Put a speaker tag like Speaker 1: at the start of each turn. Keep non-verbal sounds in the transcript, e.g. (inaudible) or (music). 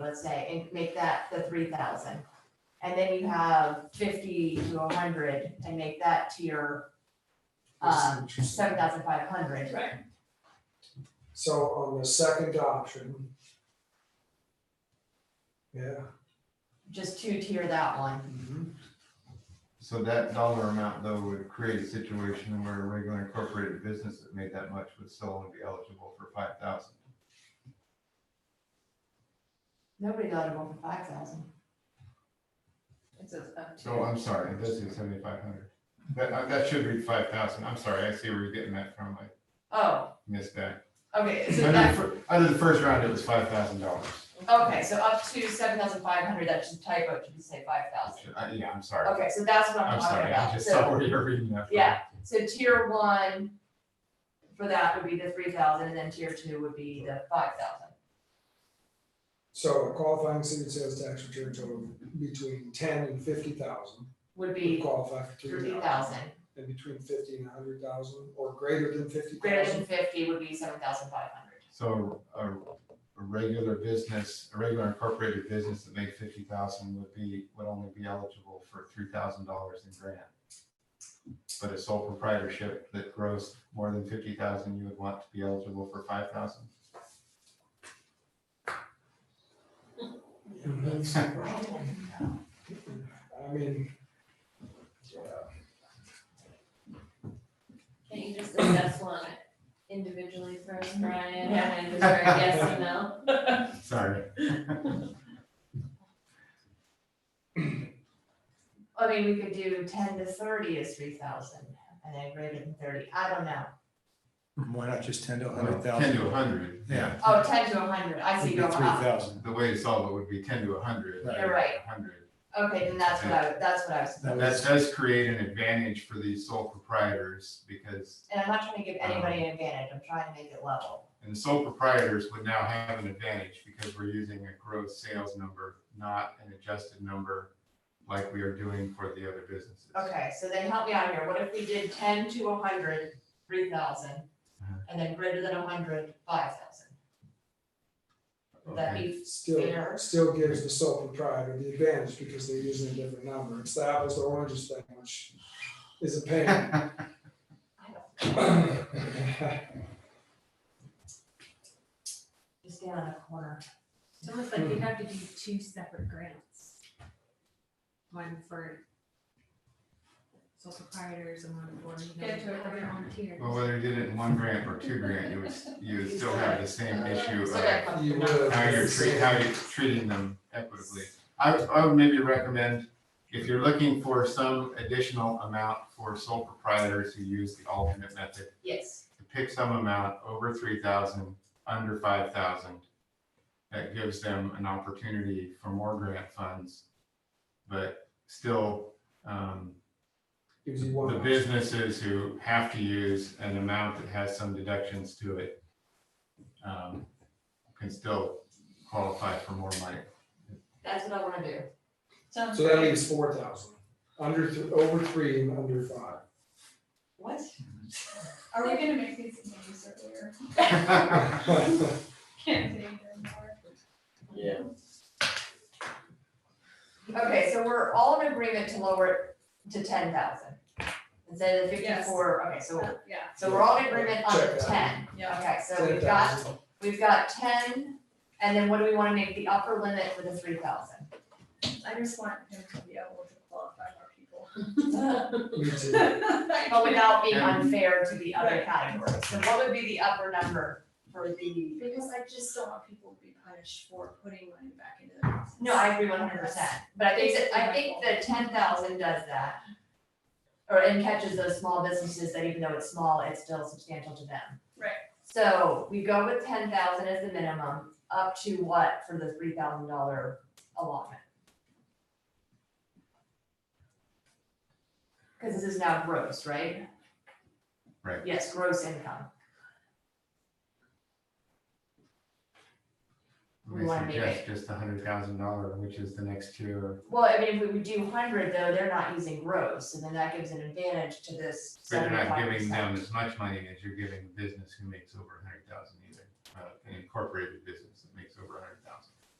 Speaker 1: let's say, and make that the three thousand. And then you have fifty to hundred and make that to your um, seven thousand five hundred.
Speaker 2: Right.
Speaker 3: So on the second option. Yeah. mm-hmm.
Speaker 1: Just two tier that one.
Speaker 4: So that dollar amount though would create a situation where a regular incorporated business that made that much would still only be eligible for five thousand.
Speaker 1: Nobody's eligible for five thousand.
Speaker 2: It says up to.
Speaker 4: So I'm sorry, it does say seventy-five hundred. That, uh, that should read five thousand. I'm sorry, I see where you're getting that from. I
Speaker 1: Oh,
Speaker 4: missed that.
Speaker 1: okay, so
Speaker 4: Under the,
Speaker 1: that,
Speaker 4: fir- under the first round, it was five thousand dollars.
Speaker 1: okay, so up to seven thousand five hundred, that's just a typo, it should say five thousand.
Speaker 4: Yeah, I'm sorry.
Speaker 1: Okay, so that's what I'm
Speaker 4: I'm
Speaker 1: talking
Speaker 4: sorry, I
Speaker 1: about,
Speaker 4: just
Speaker 1: so,
Speaker 4: saw where you're reading that. from.
Speaker 1: yeah, so tier one for that would be the three thousand, and then tier two would be the five thousand.
Speaker 3: So a qualifying city sales tax return total between ten and fifty thousand
Speaker 1: Would
Speaker 3: would
Speaker 1: be
Speaker 3: qualify for three
Speaker 1: three
Speaker 3: thousand.
Speaker 1: thousand,
Speaker 3: And between fifty and a hundred thousand or greater than fifty
Speaker 1: greater than
Speaker 3: thousand.
Speaker 1: fifty would be seven thousand five hundred.
Speaker 4: So a, a regular business, a regular incorporated business that made fifty thousand would be, would only be eligible for three thousand dollars in grant. But a sole proprietorship that grows more than fifty thousand, you would want to be eligible for five thousand?
Speaker 3: That's the problem. I mean,
Speaker 2: Can't you just assess one individually first, Brian, and then just
Speaker 4: Yeah.
Speaker 2: write yes and no?
Speaker 4: Sorry.
Speaker 1: I mean, we could do ten to thirty is three thousand, and then greater than thirty, I don't know,
Speaker 5: Why not just ten to a
Speaker 4: Well,
Speaker 5: hundred
Speaker 4: Ten
Speaker 5: thousand?
Speaker 4: to a hundred.
Speaker 5: Yeah.
Speaker 1: oh, ten to hundred, I see
Speaker 5: Would
Speaker 1: you
Speaker 5: be three
Speaker 1: going up,
Speaker 5: thousand.
Speaker 4: The way to solve it would be ten to a hundred.
Speaker 5: Right.
Speaker 1: You're right.
Speaker 4: Hundred.
Speaker 1: okay, then that's what I, that's what I was
Speaker 5: That
Speaker 4: That
Speaker 5: was,
Speaker 4: does create an advantage for these sole proprietors because
Speaker 1: And I'm not trying to give anybody
Speaker 5: Um,
Speaker 1: an advantage, I'm trying to make it level.
Speaker 4: And the sole proprietors would now have an advantage because we're using a gross sales number, not an adjusted number like we are doing for the other businesses.
Speaker 1: Okay, so then help me out here, what if we did ten to a hundred, three thousand,
Speaker 4: Uh-huh.
Speaker 1: and then greater than a hundred, five thousand? Would that be
Speaker 3: still,
Speaker 1: Fair.
Speaker 3: still gives the sole proprietor the advantage because they're using a different number. It's the apples to oranges thing, which is a pain.
Speaker 4: Okay. (laughs)
Speaker 1: (laughs) just down on a corner?
Speaker 6: It's almost like you'd have to do two separate grants. One for sole proprietors and one for, you know,
Speaker 2: Get to a
Speaker 6: other
Speaker 2: grant.
Speaker 6: volunteers.
Speaker 4: Well, whether you did it in one grant or two grant, you would, you would still have the same issue
Speaker 1: So
Speaker 4: of
Speaker 1: that comes
Speaker 3: You
Speaker 1: from-
Speaker 3: would.
Speaker 4: how you're treating, how you're treating them equitably. I, would- I would maybe recommend, if you're looking for some additional amount for sole proprietors who use the alternate method,
Speaker 1: Yes,
Speaker 4: to pick some amount over three thousand, under five thousand. That gives them an opportunity for more grant funds. But still, um,
Speaker 3: Gives you one.
Speaker 4: the businesses who have to use an amount that has some deductions to it um, can still qualify for more money. (laughs)
Speaker 1: that's what I wanna do.
Speaker 2: Sounds
Speaker 3: So that
Speaker 2: great.
Speaker 3: leaves four thousand, under, th- over three and under five. (laughs)
Speaker 1: What?
Speaker 7: Are we gonna make these names earlier? Can't say anything more.
Speaker 1: Okay, so we're all in agreement to lower it to ten thousand. Instead of
Speaker 7: Yes. Uh,
Speaker 1: fifty-four, okay, so,
Speaker 7: Yeah.
Speaker 1: so we're all in agreement on
Speaker 3: Check
Speaker 1: the
Speaker 3: that.
Speaker 1: ten.
Speaker 2: Yeah.
Speaker 1: Okay, so we've got We've got ten, and then what do we wanna make the upper limit for the three thousand?
Speaker 7: I just want him to be able to qualify more people.
Speaker 1: (laughs)
Speaker 3: Me too.
Speaker 1: But without being
Speaker 4: And-
Speaker 1: unfair to the other
Speaker 7: Right.
Speaker 1: categories, so what would be the upper number for (laughs) the?
Speaker 7: Because I just don't want people to be punished for putting money back into their business.
Speaker 1: No, I agree one hundred percent, but I think that, I think that ten thousand does that. Or and catches those small businesses that even though it's small, it's still substantial to them.
Speaker 7: Right.
Speaker 1: So we go with ten thousand as the minimum, up to what for the three thousand dollar allotment? Cause this is now gross, right?
Speaker 4: Right.
Speaker 1: Yes, gross income,
Speaker 4: We
Speaker 1: We wanna make
Speaker 4: suggest just a hundred thousand dollar, which is the next tier.
Speaker 1: well, I mean, if we would do hundred though, they're not using gross, and then that gives an advantage to this
Speaker 4: But you're
Speaker 1: seventy-five
Speaker 4: not
Speaker 1: percent.
Speaker 4: giving them as much money as you're giving the business who makes over a hundred thousand either, uh, an incorporated business that makes over a hundred